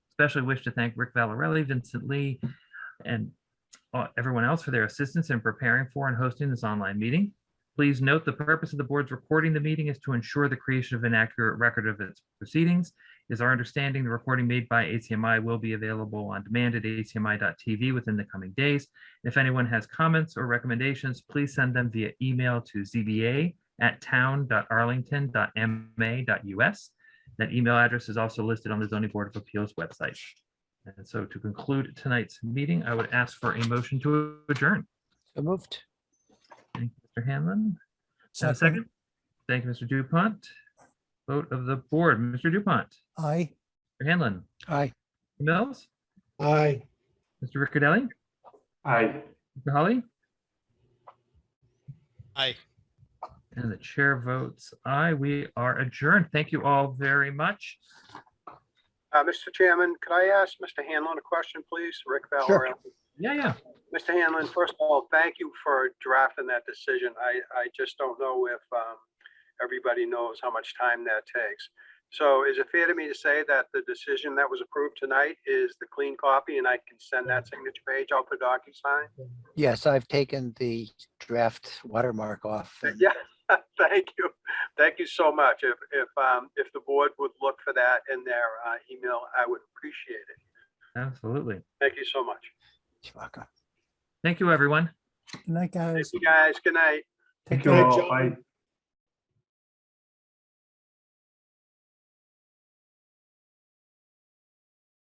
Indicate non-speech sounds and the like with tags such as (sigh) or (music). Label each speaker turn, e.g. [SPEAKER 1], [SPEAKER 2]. [SPEAKER 1] especially wish to thank Rick Valarelli, Vincent Lee, and uh, everyone else for their assistance in preparing for and hosting this online meeting. Please note the purpose of the board's recording the meeting is to ensure the creation of an accurate record of its proceedings. It Is our understanding the recording made by ACMI will be available on demand at acmi.tv within the coming days. If anyone has comments or recommendations, please send them via email to zba@town.arlington.ma.us. That email address is also listed on the zoning board of appeals website. And so to conclude tonight's meeting, I would ask for a motion to adjourn.
[SPEAKER 2] So moved.
[SPEAKER 1] Thank you, Mr. Hanlon, And a second. Thank you, Mr. Dupont. Vote of the board, Mr. Dupont,
[SPEAKER 2] Aye.
[SPEAKER 1] Mr. Hanlon,
[SPEAKER 2] Aye.
[SPEAKER 1] Mills,
[SPEAKER 3] Aye.
[SPEAKER 1] Mr. Riccadelli,
[SPEAKER 3] Aye.
[SPEAKER 1] Mr. Holly,
[SPEAKER 4] Aye.
[SPEAKER 1] and the chair votes aye. We are adjourned. Thank you all very much.
[SPEAKER 5] Uh, Mr. Chairman, could I ask Mr. Hanlon a question, please? Rick
[SPEAKER 2] Sure.
[SPEAKER 5] Valorem.
[SPEAKER 1] Yeah, yeah.
[SPEAKER 5] Mr. Hanlon, first of all, thank you for drafting that decision. I, I just don't know if, um, everybody knows how much time that takes. So is it fair to me to say that the decision that was approved tonight is the clean copy and I can send that signature page out for DocuSign?
[SPEAKER 2] Yes, I've taken the draft watermark off. and-
[SPEAKER 5] Yeah, (laughs) thank you. Thank you so much. If, if, um, if the board would look for that in their, uh, email, I would appreciate it.
[SPEAKER 1] Absolutely.
[SPEAKER 5] Thank you so much.
[SPEAKER 2] Chewbacca.
[SPEAKER 1] Thank you, everyone.
[SPEAKER 6] Night,
[SPEAKER 5] Thank
[SPEAKER 6] guys.
[SPEAKER 5] you, guys. Good night.
[SPEAKER 6] Take
[SPEAKER 3] Good
[SPEAKER 6] care.
[SPEAKER 3] night, John.